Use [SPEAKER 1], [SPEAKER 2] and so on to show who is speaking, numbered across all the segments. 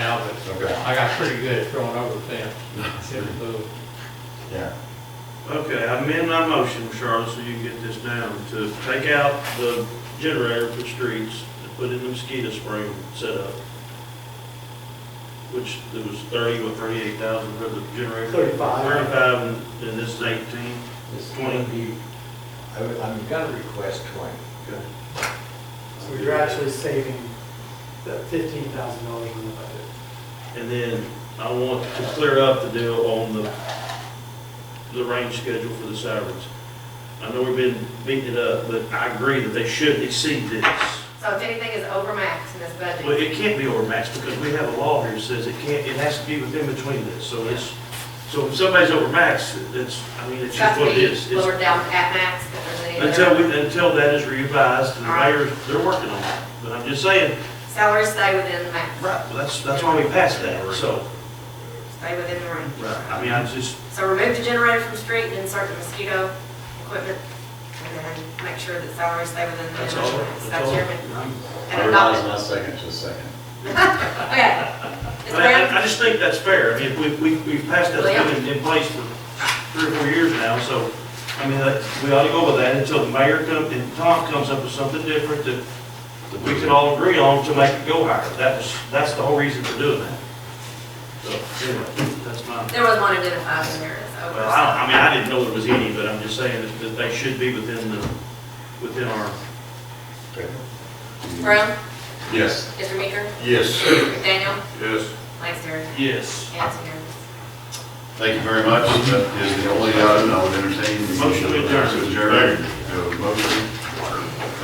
[SPEAKER 1] Okay,
[SPEAKER 2] I got pretty good at throwing over the fence, every move.
[SPEAKER 1] yeah.
[SPEAKER 3] Okay, I amend my motion, Charlotte, so you can get this down, to take out the generator for the streets and put in the mosquito spring setup, which there was thirty or thirty-eight thousand for the generator.
[SPEAKER 4] Thirty-five.
[SPEAKER 3] Thirty-five, and- and this is eighteen.
[SPEAKER 1] It's
[SPEAKER 3] Twenty.
[SPEAKER 1] I would, I'm gonna request twenty.
[SPEAKER 3] Okay.
[SPEAKER 4] So you're actually saving that fifteen thousand dollars in the budget.
[SPEAKER 3] And then I want to clear up the deal on the, the range schedule for the sirens. I know we've been beating it up, but I agree that they should exceed this.
[SPEAKER 5] So if anything is over max in this
[SPEAKER 3] Well,
[SPEAKER 5] budget,
[SPEAKER 3] it can't be overmatched because we have a law here that says it can't, it has to be within between this, so it's, so if somebody's overmatched, it's, I mean,
[SPEAKER 5] it's
[SPEAKER 3] it's
[SPEAKER 5] got
[SPEAKER 3] just
[SPEAKER 5] to
[SPEAKER 3] what it
[SPEAKER 5] be
[SPEAKER 3] is. It's-
[SPEAKER 5] lowered down at max if there's any.
[SPEAKER 3] Until we, until that is revised, and the mayor, they're working on it. But I'm just saying,
[SPEAKER 5] Salaries stay within the max,
[SPEAKER 3] right, well, that's, that's why we passed that, so,
[SPEAKER 5] stay within the range.
[SPEAKER 3] right, I mean, I just,
[SPEAKER 5] So remove the generator from street, insert the mosquito equipment, and then make sure that salaries stay within the.
[SPEAKER 3] that's all, that's
[SPEAKER 5] That's
[SPEAKER 3] all.
[SPEAKER 5] your,
[SPEAKER 3] I'm-
[SPEAKER 5] and
[SPEAKER 1] I realize
[SPEAKER 5] adopt
[SPEAKER 1] my second's a second.
[SPEAKER 5] it. Okay. It's
[SPEAKER 3] I,
[SPEAKER 5] around,
[SPEAKER 3] I- I just think that's fair. I mean, we, we, we've passed that
[SPEAKER 5] Well, yeah.
[SPEAKER 3] thing in, in place for three or four years now, so, I mean, that, we ought to go with that until the mayor comes, and Tom comes up with something different that, that we can all agree on to make it go higher. That was, that's the whole reason for doing that. So, anyway, that's my,
[SPEAKER 5] there was one identified in there as over.
[SPEAKER 3] well, I, don't- I mean, I didn't know there was any, but I'm just saying that- that they should be within the, within our,
[SPEAKER 1] Okay.
[SPEAKER 5] Brown,
[SPEAKER 1] Yes.
[SPEAKER 5] Mr. Meeker,
[SPEAKER 1] Yes.
[SPEAKER 5] McDaniel,
[SPEAKER 1] Yes.
[SPEAKER 5] Lester,
[SPEAKER 3] yes.
[SPEAKER 5] and it's unanimous.
[SPEAKER 1] Thank you very much. That is the only item I would entertain. the
[SPEAKER 3] Motion to adjourn.
[SPEAKER 1] To adjourn. Uh, Motion.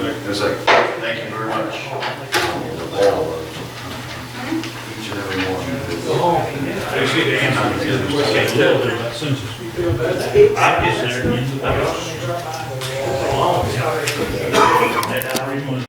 [SPEAKER 1] And a second. Thank you very much. All of us. Each and every one.
[SPEAKER 3] I'm just there.
[SPEAKER 6] Everyone.